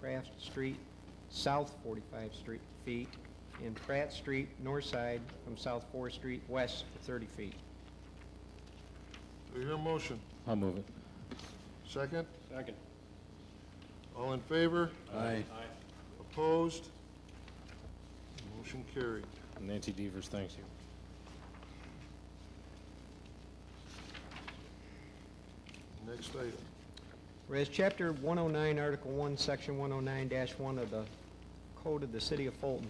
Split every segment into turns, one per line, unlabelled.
45th Street south 45 street, feet, and Pratt Street north side from South 4th Street west to 30 feet.
Do you hear a motion?
I'll move it.
Second?
Second.
All in favor?
Aye.
Opposed? Motion carried.
Nancy Devers, thank you.
Next item.
Whereas Chapter 109, Article 1, Section 109-1 of the Code of the City of Fulton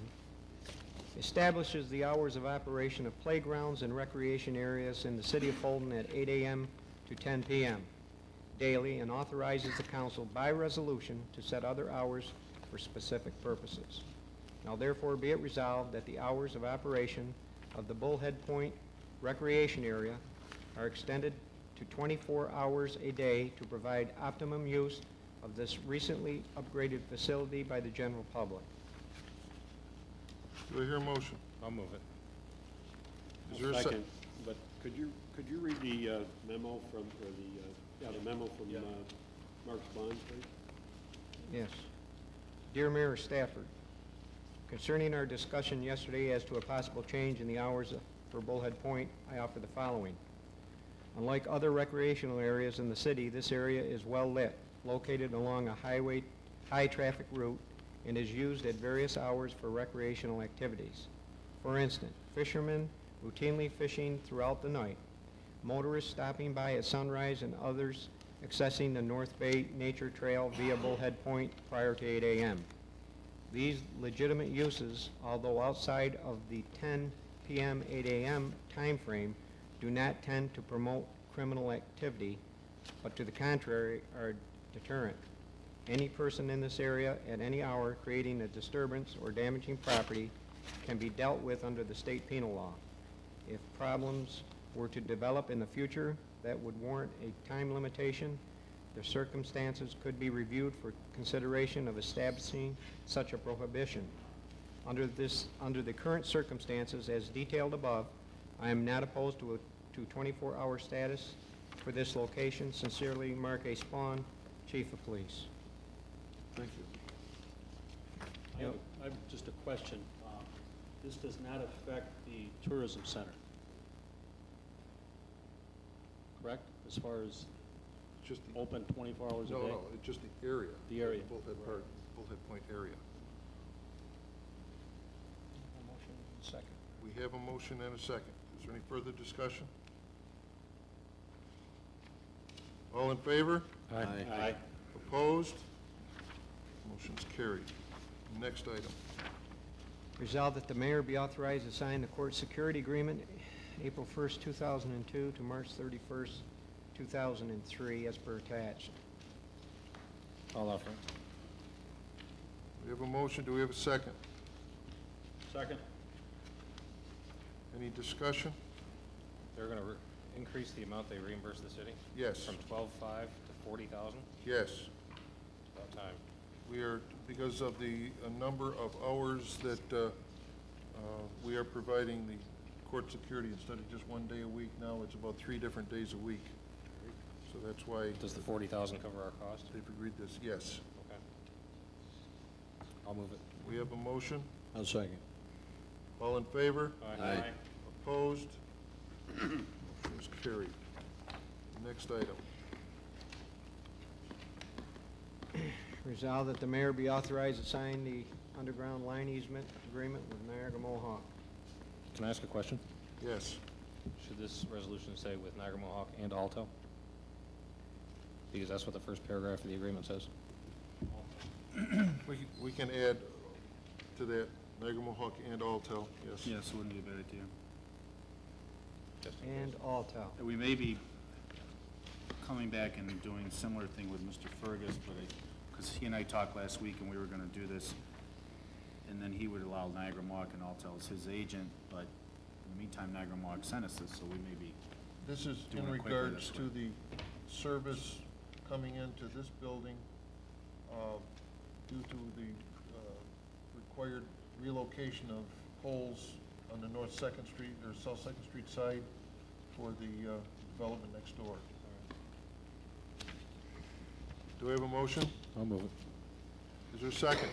establishes the hours of operation of playgrounds and recreation areas in the City of Fulton at 8 a.m. to 10 p.m. daily and authorizes the council by resolution to set other hours for specific purposes. Now therefore be it resolved that the hours of operation of the Bullhead Point Recreation Area are extended to 24 hours a day to provide optimum use of this recently upgraded facility by the general public.
Do I hear a motion?
I'll move it.
Is there a sec-
Second, but could you, could you read the uh, memo from, or the, uh, yeah, the memo from uh, Mark's Bond, please?
Yes. Dear Mayor Stafford, concerning our discussion yesterday as to a possible change in the hours for Bullhead Point, I offer the following. Unlike other recreational areas in the city, this area is well-lit, located along a highway, high-traffic route, and is used at various hours for recreational activities. For instance, fishermen routinely fishing throughout the night, motorists stopping by at sunrise, and others accessing the North Bay Nature Trail via Bullhead Point prior to 8 a.m. These legitimate uses, although outside of the 10 PM, 8 AM timeframe, do not tend to promote criminal activity, but to the contrary, are deterrent. Any person in this area at any hour creating a disturbance or damaging property can be dealt with under the state penal law. If problems were to develop in the future that would warrant a time limitation, the circumstances could be reviewed for consideration of establishing such a prohibition. Under this, under the current circumstances as detailed above, I am not opposed to a, to 24-hour status for this location. Sincerely, Mark A. Spawn, Chief of Police.
Thank you.
I have, I have just a question. Um, This does not affect the tourism center, correct? As far as
Just the, no,
open 24 hours a day?
no, it's just the area.
The area.
Bullhead Park, Bullhead Point area.
second.
We have a motion and a second. Is there any further discussion? All in favor?
Aye.
Aye.
Opposed? Motion's carried. Next item.
Resolved that the mayor be authorized to sign the court security agreement April 1st, 2002 to March 31st, 2003, as per attached.
I'll offer it.
We have a motion. Do we have a second?
Second?
Any discussion?
They're gonna re- increase the amount they reimburse the city?
Yes.
From twelve-five to forty thousand?
Yes.
About time.
We are, because of the uh, number of hours that uh, uh, we are providing the court security, instead of just one day a week, now it's about three different days a week. So that's why
Does the forty thousand cover our cost?
they've agreed this, yes.
Okay. I'll move it.
We have a motion.
I'll second.
All in favor?
Aye.
Opposed? Motion's carried. Next item.
Resolved that the mayor be authorized to sign the underground line easement agreement with Niagara Mohawk.
Can I ask a question?
Yes.
Should this resolution say with Niagara Mohawk and Alto? Because that's what the first paragraph of the agreement says.
We can- we can add to that Niagara Mohawk and Altel, yes.
Yes, it wouldn't be a bad idea.
Just in
And
case.
Altel.
And we may be coming back and doing a similar thing with Mr. Fergus, but I, because he and I talked last week and we were gonna do this, and then he would allow Niagara Mohawk and Altel as his agent, but in the meantime, Niagara Mohawk sent us this, so we may be,
This is
Do
in
it quickly,
regards
that's
to the service coming into this building uh, due to the uh, required relocation of poles on the North Second Street or South Second Street side for the uh, development next door. Do we have a motion?
I'll move it.
Is there a second?